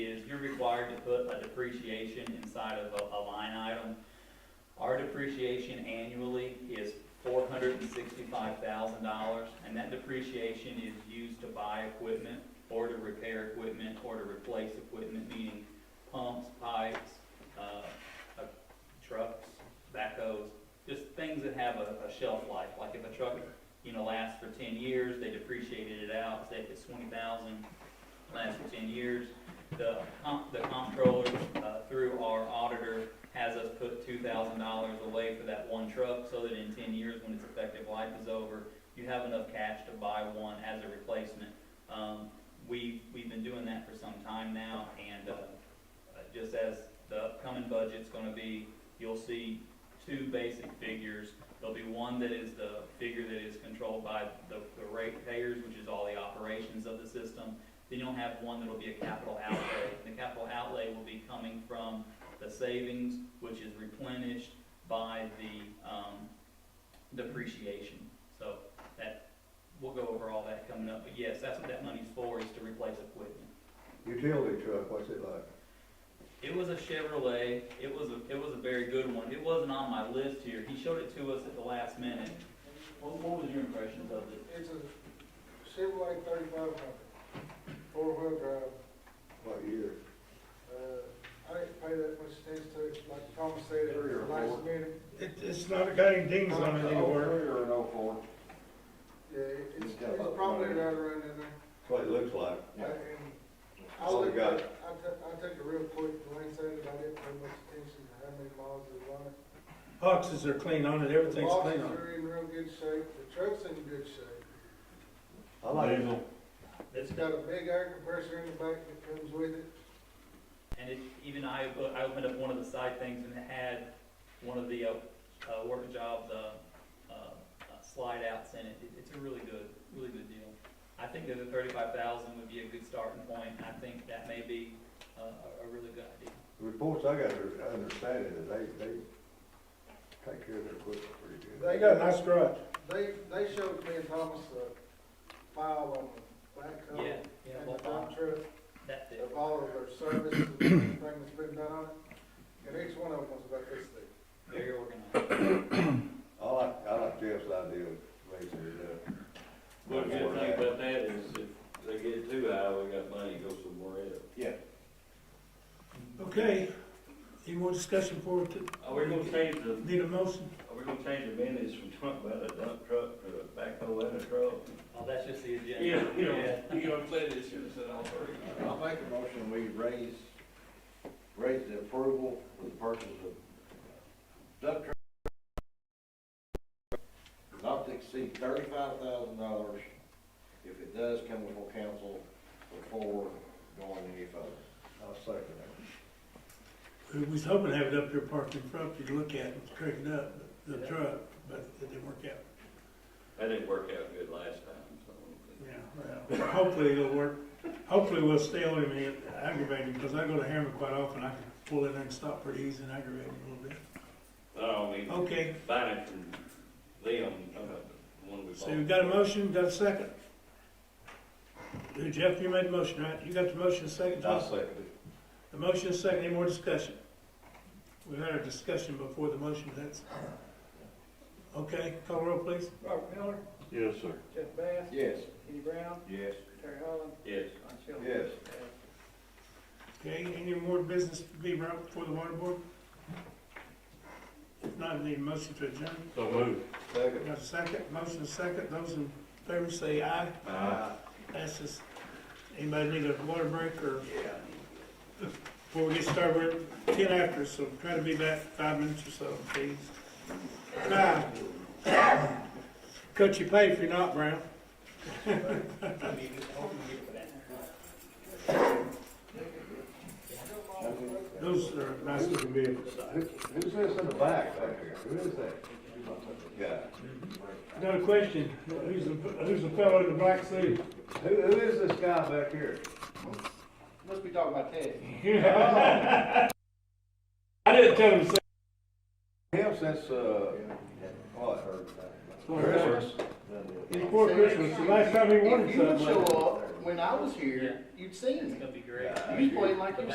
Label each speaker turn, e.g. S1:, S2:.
S1: you're required to put a depreciation inside of a, a line item. Our depreciation annually is four hundred and sixty-five thousand dollars, and that depreciation is used to buy equipment or to repair equipment or to replace equipment, meaning pumps, pipes, uh, uh, trucks, backhoes, just things that have a, a shelf life, like if a truck, you know, lasts for ten years, they depreciated it out, say if it's twenty thousand, lasts for ten years. The comp, the comptroller, uh, through our auditor, has us put two thousand dollars away for that one truck, so that in ten years, when its effective life is over, you have enough cash to buy one as a replacement. Um, we, we've been doing that for some time now, and, uh, uh, just as the upcoming budget's gonna be, you'll see two basic figures. There'll be one that is the figure that is controlled by the, the rate payers, which is all the operations of the system. Then you'll have one that'll be a capital outlay. The capital outlay will be coming from the savings, which is replenished by the, um, depreciation. So that, we'll go over all that coming up, but yes, that's what that money's for, is to replace equipment.
S2: Utility truck, what's it like?
S1: It was a Chevrolet. It was a it was a very good one. It wasn't on my list here. He showed it to us at the last minute. What, what was your impressions of it?
S3: It's a Chevrolet thirty-five hundred, four-wheel drive.
S2: What year?
S3: Uh, I didn't pay that much attention to it, like Tom said, it
S2: Three or
S3: was last
S2: four.
S3: minute.
S4: It, it's not got any dings on it anywhere.
S2: or an oh four?
S3: Yeah, it- it's,
S2: It's got about
S3: it's probably
S2: one.
S3: right around in there.
S2: That's what it looks like.
S3: And I
S2: All we
S3: looked,
S2: got.
S3: at- I took, I took a real quick glance at it, I didn't pay much attention to how many miles it was on it.
S4: Boxes are clean on it,
S3: The
S4: everything's
S3: boxes
S4: clean on it.
S3: are in real good shape, the truck's in good shape.
S2: I like it.
S1: This
S3: It's got a big air compressor in the back that comes with it.
S1: and it, even I o- I opened up one of the side things and it had one of the uh, uh, work jobs uh, uh, uh, slide outs in it. it. It's a really good really good deal. I think that the thirty five thousand would be a good starting point. I think that may be uh, a, a really good idea.
S2: The Reports I got are understanding that they, they take care of their equipment pretty good.
S4: They got a nice garage.
S3: They, they showed me and Thomas a file on the back of
S1: Yeah,
S3: it
S1: yeah,
S3: and
S1: well,
S3: the dump truck
S1: that thing.
S3: of all of their services and everything that's been done on it. And each one of them was about this thing.
S1: Very organized.
S2: I like, I like Jeff's idea of raising it up.
S5: Well, the good thing about that is if they get too high, we got money to go somewhere else.
S2: Yeah.
S4: Okay, any more discussion for it?
S5: Are we gonna change the,
S4: Need a motion?
S5: are we gonna change the minutes from talking about a dump truck to a backhoe and a truck?
S1: Oh, that's just the agenda.
S5: you know, play this, you said all three.
S6: I'll make a motion, we raise, raise the approval for the purchase of uh, dump truck. Not to exceed thirty-five thousand dollars, if it does come before council before going any further.
S2: I'll second that.
S4: We was hoping to have it up here parked in front for you to look at and straighten up the truck, but it didn't work out.
S5: That didn't work out good last time, so.
S4: Yeah, well, hopefully it'll work. Hopefully we'll stale him and aggravate him, because I go to Harriman quite often. I can pull in there and stop pretty easy and aggravate him a little bit.
S5: No, I mean,
S4: Okay,
S5: buying it from Leon, talking about the one we bought.
S4: so we've got a motion, got a second. Jeff, you made the motion, right? You got the motion second? Jeff?
S2: second it.
S4: The motion is second, any more discussion? We've had a discussion before the motion, that's. Okay, call roll please.
S7: Robert Miller,
S2: Yes, sir.
S7: Jeff Bass,
S6: Yes.
S7: Kenny Brown,
S6: Yes.
S7: Terry Holland,
S5: Yes.
S7: Don Shelby.
S2: Yes.
S4: Okay, any more business to be brought before the water board? If not, I need a motion to adjourn.
S5: So move.
S2: Second.
S4: Got a second, motion is second, those in favor say aye.
S2: Aye.
S4: That's just, anybody need a water break or? Before we get started, we're ten after, so try to be back five minutes or so, please. Now, Cut your pay if you're not, Brown. Those are nice looking vehicles.
S2: Who, who's this in the back back here? Who is that? Yeah.
S4: Another question, who's the, who's the fellow in the black suit?
S2: Who, who is this guy back here?
S6: Must be talking about Ted.
S4: I didn't tell him to say.
S2: Him since, uh, what? Christmas?
S4: He's poor Christmas, the last time he wanted
S8: If you would
S4: something.
S8: show up when I was here, you'd seen
S1: It's
S8: me.
S1: gonna be great.
S8: You was playing like you